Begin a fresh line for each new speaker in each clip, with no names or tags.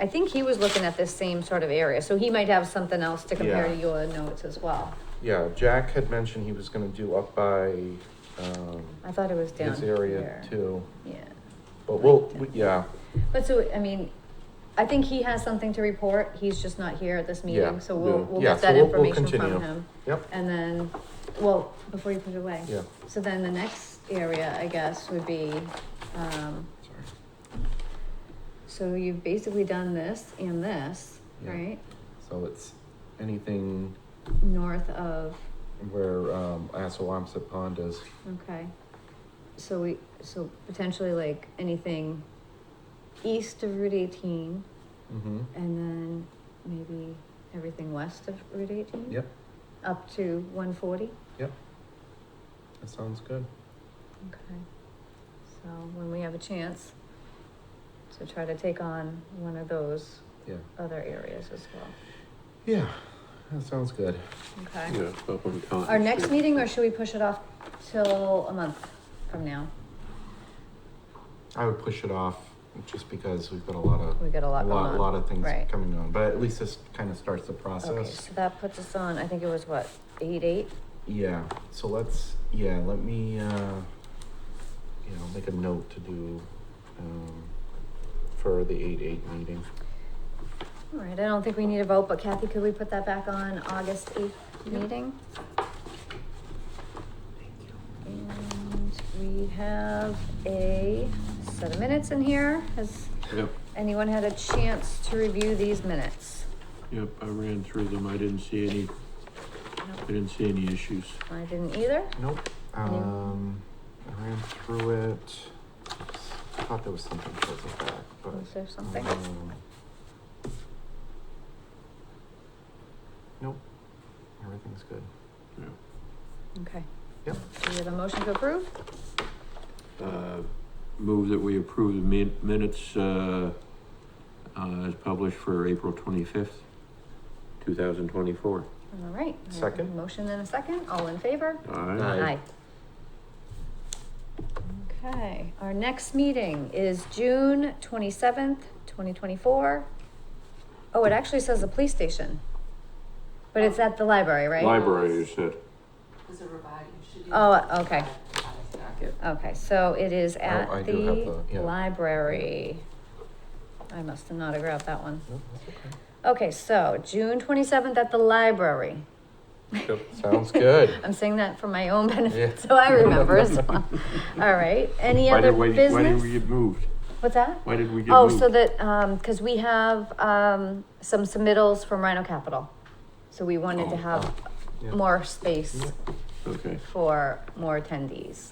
I think he was looking at this same sort of area, so he might have something else to compare
Yeah.
to your notes as well.
Yeah, Jack had mentioned he was gonna do up by, um,
I thought it was down
his area
here.
too,
Yeah,
but we'll, we- yeah,
but so, I mean, I think he has something to report, he's just not here at this
Yeah,
meeting, so we'll,
yeah.
we'll
Yeah,
get
so
that
we'll- we'll
information
continue.
from him.
Yep.
And then, well, before you put it away.
yeah,
So then the next area, I guess, would be, um,
sorry.
so you've basically done this and this,
Yeah.
right?
So it's anything
North of,
where, um, Assawamsett Pond is,
okay. So we, so potentially like anything east of Route eighteen
mm-hmm,
and then maybe everything west of Route eighteen?
Yep.
Up to one forty?
that sounds good.
Okay. So when we have a chance to try to take on one of those
Yeah.
other areas as well,
Yeah, that sounds good.
okay?
Yeah, up on Cotton
Our next
Street.
meeting, or should we push it off till a month from now?
I would push it off just because we've got a lot of,
We got
a
a lot going
lot,
on.
lot of things
Right.
coming on, but at least this kind of starts the
Okay,
process.
so that puts us on, I think it was what, eight, eight?
Yeah, so let's, yeah, let me, uh, you know, make a note to do, um, for the eight eight meeting.
All right, I don't think we need a vote, but Kathy, could we put that back on August eighth meeting? And we have a set of minutes in here. Has
Yep,
anyone had a chance to review these minutes?
yep, I ran through them, I didn't see any, I
Nope,
didn't see any issues.
I didn't either.
Nope, um, I ran through it, I thought there was something towards the back, but.
Was there something?
um, Nope, everything's good.
Yeah.
Okay.
Yep.
Do we have a motion to approve?
Uh, Move that we approve the min- minutes uh, uh, as published for April twenty-fifth, two thousand twenty-four.
All right. I have a
Second.
Motion and a second, all in favor?
Aye.
Aye.
Okay, our next meeting is June twenty-seventh, twenty twenty-four. Oh, it actually says the police station. But it's at the library, right?
Library, you said.
There's a revised, you should do.
Oh, okay.
revised docket.
Okay, so it is at
Oh, I do have
the
the- yeah.
library. I must have not have grabbed that one.
Nope, that's
Okay, so June twenty-seventh at the library.
okay. Sounds good.
I'm saying that for my own benefit,
Yeah.
so I remember as well. All right, any
Why
other
did we- Why did we
business?
get moved?
What's that?
Why did we get
Oh,
moved?
so that, um, cause we have, um, some submittals from Rhino Capital. So we wanted to
Oh,
have
yeah.
more space
Okay,
for more attendees.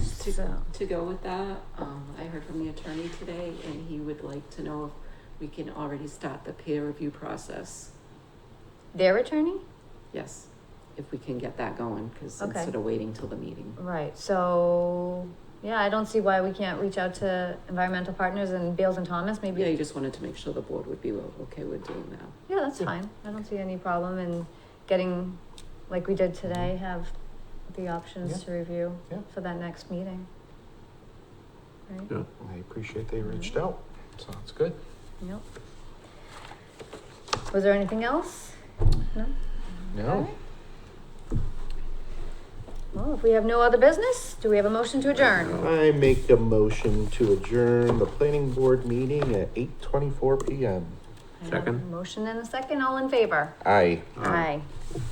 So,
To go with that, um, I heard from the attorney today and he would like to know if we can already start the peer review process.
their attorney?
Yes, if we can get that going, because
Okay.
instead of waiting till the meeting.
Right, so, yeah, I don't see why we can't reach out to environmental partners and Bales and Thomas,
Yeah, you
maybe.
just wanted to make sure the board would be okay with doing that.
Yeah, that's fine. I don't see any problem in getting, like we did today, have the options
Yeah.
to review
Yeah.
for that next meeting. Right?
yeah.
I appreciate they reached out, sounds good.
Nope. Was there anything else? No?
No,
Well, if we have no other business, do we have a motion to adjourn?
I make a motion to adjourn the planning board meeting at eight twenty-four PM.
I have a
Second.
Motion and a second, all in favor?
Aye.
Aye.
Aye.